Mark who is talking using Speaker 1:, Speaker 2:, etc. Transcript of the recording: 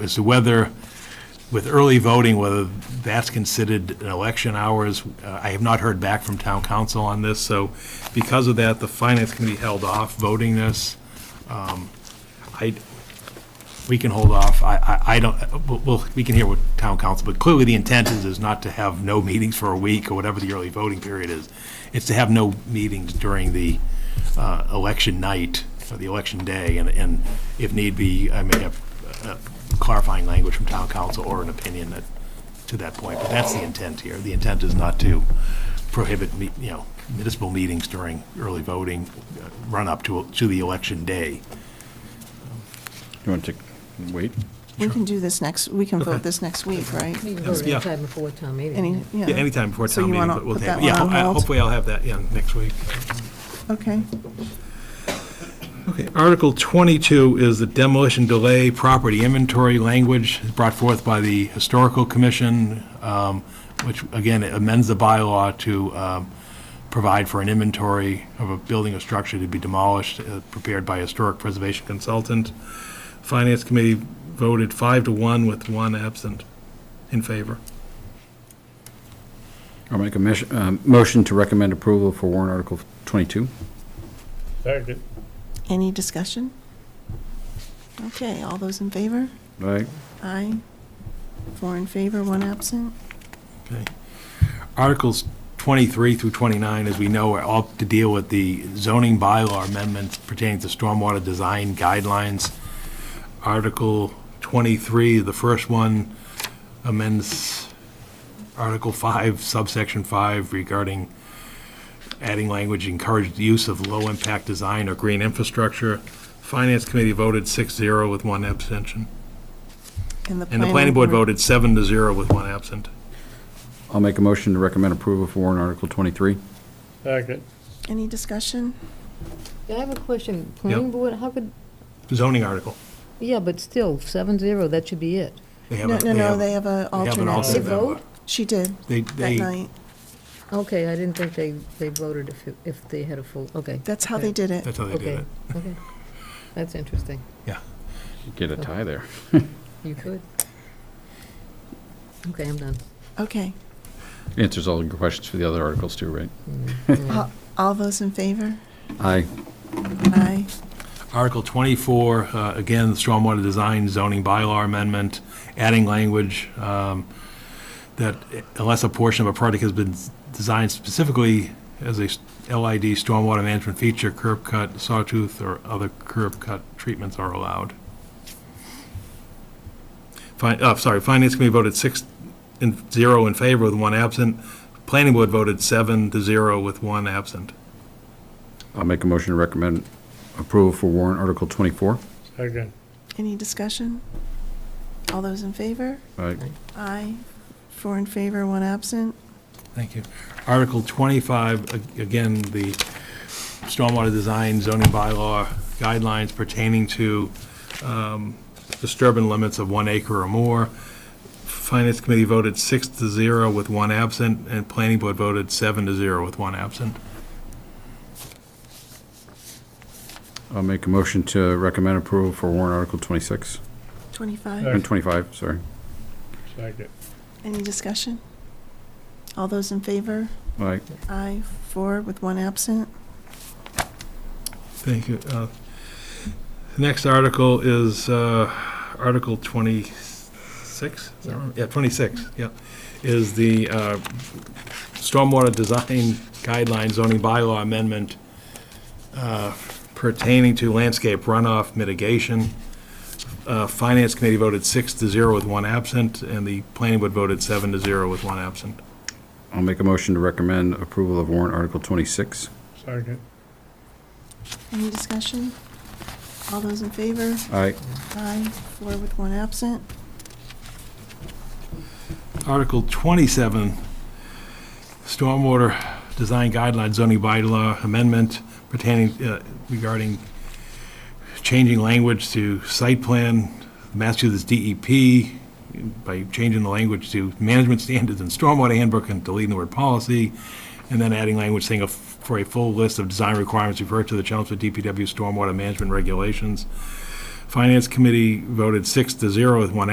Speaker 1: as to whether, with early voting, whether that's considered an election hours. Uh, I have not heard back from town council on this, so because of that, the finance committee held off voting this. Um, I, we can hold off. I, I, I don't, we'll- we'll, we can hear what town council, but clearly the intent is, is not to have no meetings for a week or whatever the early voting period is. It's to have no meetings during the, uh, election night or the election day, and, and if need be, I may have uh, clarifying language from town council or an opinion that, to that point, but that's the intent here. The intent is not to prohibit, me- you know, municipal meetings during early voting, uh, run up to, to the election day.
Speaker 2: You want to wait?
Speaker 3: We can do this next, we can
Speaker 1: Okay.
Speaker 3: vote this next week, right?
Speaker 4: We can
Speaker 1: Yes,
Speaker 4: vote
Speaker 1: yeah.
Speaker 4: anytime before town
Speaker 3: Any,
Speaker 4: meeting.
Speaker 3: yeah.
Speaker 1: Yeah, anytime before
Speaker 3: So
Speaker 1: town
Speaker 3: you
Speaker 1: meeting,
Speaker 3: wanna
Speaker 1: but we'll
Speaker 3: put
Speaker 1: take,
Speaker 3: that
Speaker 1: yeah,
Speaker 3: one on
Speaker 1: I-
Speaker 3: hold?
Speaker 1: hopefully I'll have that, yeah, next week.
Speaker 3: Okay,
Speaker 1: Okay, Article 22 is the demolition delay property inventory language brought forth by the Historical Commission, um, which, again, amends the bylaw to um, provide for an inventory of a building or structure to be demolished, uh, prepared by a historic preservation consultant. Finance Committee voted five to one with one absent in favor.
Speaker 2: I'll make a mesh- um, motion to recommend approval for warrant Article 22.
Speaker 5: Second.
Speaker 3: any discussion? Okay, all those in favor?
Speaker 2: All right,
Speaker 3: Aye. Four in favor, one absent.
Speaker 1: Okay. Articles 23 through 29, as we know, are all to deal with the zoning bylaw amendments pertaining to stormwater design guidelines. Article 23, the first one amends Article 5 subsection 5 regarding adding language encouraged use of low-impact design or green infrastructure. Finance Committee voted 6-0 with one abstention. And the Planning Board voted 7 to 0 with one absent.
Speaker 2: I'll make a motion to recommend approval for warrant Article 23.
Speaker 5: Second.
Speaker 3: Any discussion?
Speaker 4: I have a question. Planning
Speaker 1: Yep.
Speaker 4: board, how could,
Speaker 1: Zoning article.
Speaker 4: yeah, but still, seven zero, that should be it.
Speaker 1: They have
Speaker 3: No,
Speaker 1: a-
Speaker 3: no, no,
Speaker 1: have-
Speaker 3: they have a
Speaker 1: They have an
Speaker 3: alternate.
Speaker 4: They
Speaker 1: alternate member.
Speaker 4: vote?
Speaker 3: She did,
Speaker 1: They,
Speaker 3: that
Speaker 1: they,
Speaker 3: night.
Speaker 4: Okay, I didn't think they, they voted if, it- if they had a full, okay.
Speaker 3: That's how they did it.
Speaker 1: that's how they did
Speaker 4: Okay,
Speaker 1: it.
Speaker 4: okay. That's interesting.
Speaker 2: Get a tie there.
Speaker 4: You could. Okay, I'm done.
Speaker 3: Okay,
Speaker 2: Answers all your questions for the other articles too, right?
Speaker 3: all all those in favor?
Speaker 2: Aye.
Speaker 3: Aye.
Speaker 1: Article 24, uh, again, the stormwater design zoning bylaw amendment, adding language um, that unless a portion of a project has been designed specifically as a LID stormwater management feature, curb cut, sawtooth, or other curb cut treatments are allowed. Fin, oh, sorry, Finance Committee voted six, in, zero in favor with one absent. Planning Board voted seven to zero with one absent.
Speaker 2: I'll make a motion to recommend approval for warrant Article 24.
Speaker 5: Second.
Speaker 3: Any discussion? All those in favor?
Speaker 2: All right,
Speaker 3: Aye. Four in favor, one absent.
Speaker 1: Thank you. Article 25, a- again, the stormwater design zoning bylaw guidelines pertaining to um, disturbance limits of one acre or more. Finance Committee voted six to zero with one absent, and Planning Board voted seven to zero with one absent.
Speaker 2: I'll make a motion to recommend approval for warrant Article 26,
Speaker 3: 25.
Speaker 5: Aye.
Speaker 2: and 25, sorry.
Speaker 5: Second.
Speaker 3: Any discussion? All those in favor?
Speaker 2: All right,
Speaker 3: Aye, four with one absent.
Speaker 1: Thank you. Uh, The next article is uh, Article 26? Is that right? Yeah, 26, yeah, is the uh, Stormwater Design Guidelines zoning bylaw amendment uh, pertaining to landscape runoff mitigation. Uh, Finance Committee voted six to zero with one absent, and the Planning Board voted seven to zero with one absent.
Speaker 2: I'll make a motion to recommend approval of warrant Article 26.
Speaker 5: Second.
Speaker 3: Any discussion? All those in favor?
Speaker 2: All right,
Speaker 3: Aye, four with one absent.
Speaker 1: Article 27, Stormwater Design Guidelines zoning bylaw amendment pertaining uh, regarding changing language to site plan, Massachusetts DEP, by changing the language to management standards and stormwater handbook and deleting the word policy, and then adding language saying a f- for a full list of design requirements, refer to the Chelmsford DPW stormwater management regulations. Finance Committee voted six to zero with one